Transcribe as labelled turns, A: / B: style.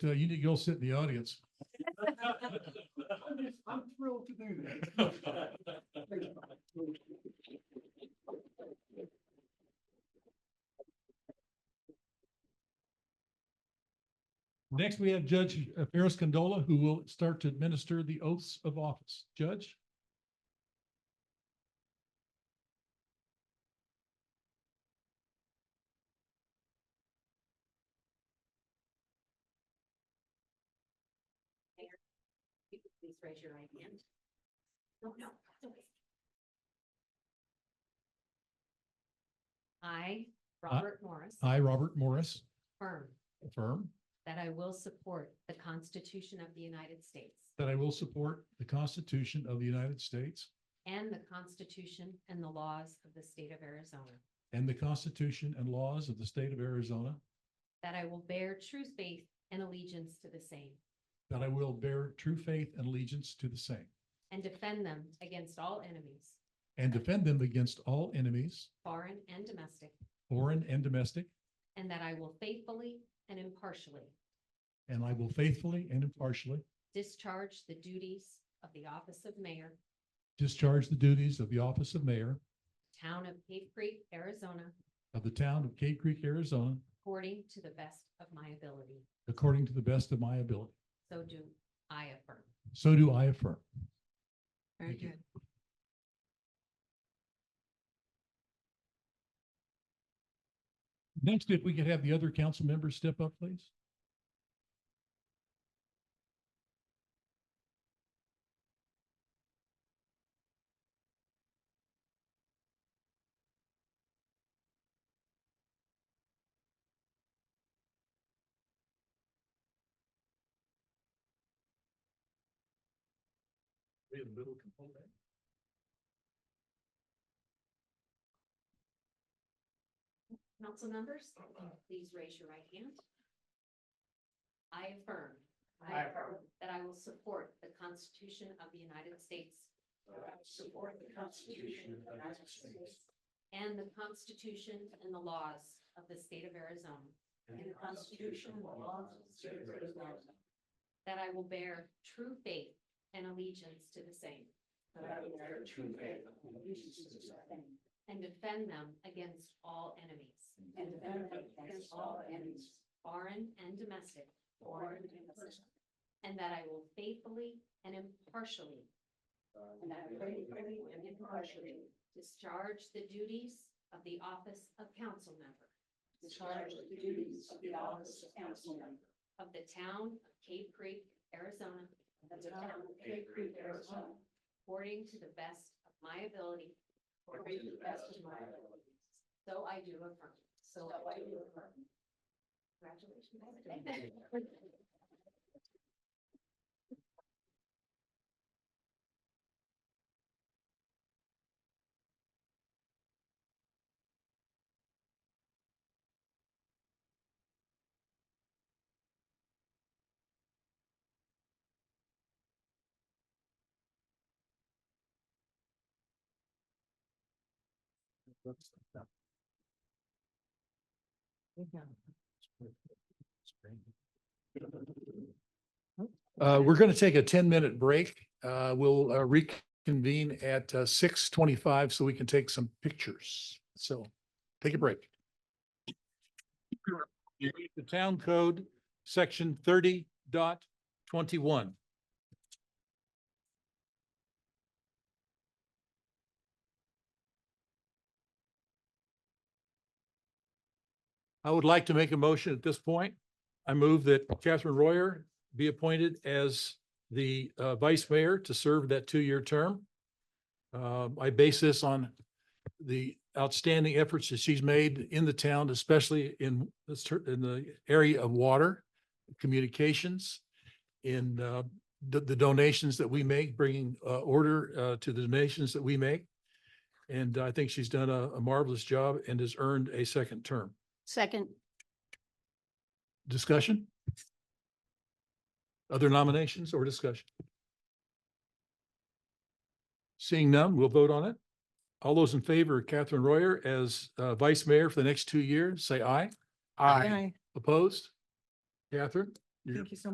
A: Uh, you need to go sit in the audience.
B: I'm thrilled to do that.
A: Next, we have Judge uh, Ferris Condola, who will start to administer the oaths of office. Judge?
C: If you could Please raise your right hand. No, no. it's okay. I, Robert Morris,
A: I, Robert Morris,
C: affirm
A: affirm
C: that I will support the Constitution of the United States
A: that I will support the Constitution of the United States
C: and the Constitution and the laws of the state of Arizona,
A: and the Constitution and laws of the state of Arizona,
C: that I will bear true faith and allegiance to the same
A: that I will bear true faith and allegiance to the same,
C: and defend them against all enemies,
A: and defend them against all enemies,
C: foreign and domestic,
A: foreign and domestic,
C: and that I will faithfully and impartially
A: and I will faithfully and impartially
C: discharge the duties of the office of mayor
A: discharge the duties of the office of mayor
C: Town of Cave Creek, Arizona,
A: of the town of Cave Creek, Arizona,
C: according to the best of my ability.
A: according to the best of my ability.
C: So do I affirm.
A: So do I affirm.
C: Very
A: Thank you.
C: good.
A: Next, if we could have the other council members step up, please. In the middle can hold that.
C: Council members, please raise your right hand. I affirm.
B: I affirm.
C: That I will support the Constitution of the United States
B: Support the Constitution of the United States.
C: and the Constitution and the laws of the state of Arizona,
B: And the Constitution and laws of the state of Arizona.
C: that I will bear true faith and allegiance to the same
B: That I will bear true faith and allegiance to the same.
C: and defend them against all enemies,
B: And defend them against all enemies.
C: foreign and domestic,
B: Foreign and domestic.
C: and that I will faithfully and impartially
B: And I faithfully and impartially.
C: discharge the duties of the office of council member
B: Discharge the duties of the office of council member.
C: of the town of Cave Creek, Arizona,
B: Of the town of Cave Creek, Arizona.
C: according to the best of my ability.
B: According to the best of my ability.
C: So I do affirm.
B: So
C: So
B: I do affirm.
C: Congratulations.
A: Uh, we're going to take a ten-minute break. Uh, we'll uh, reconvene at uh, six twenty-five so we can take some pictures. So take a break. The town code, section thirty dot twenty-one. I would like to make a motion at this point. I move that Catherine Royer be appointed as the uh, vice mayor to serve that two-year term. Uh, I base this on the outstanding efforts that she's made in the town, especially in the cer- in the area of water, communications, in uh, the the donations that we make, bringing uh, order uh, to the donations that we make. And I think she's done a a marvelous job and has earned a second term.
C: Second.
A: Discussion? Other nominations or discussion? Seeing none, we'll vote on it. All those in favor of Catherine Royer as uh, vice mayor for the next two years, say aye. Opposed? Catherine,
D: You're-
A: Thank you so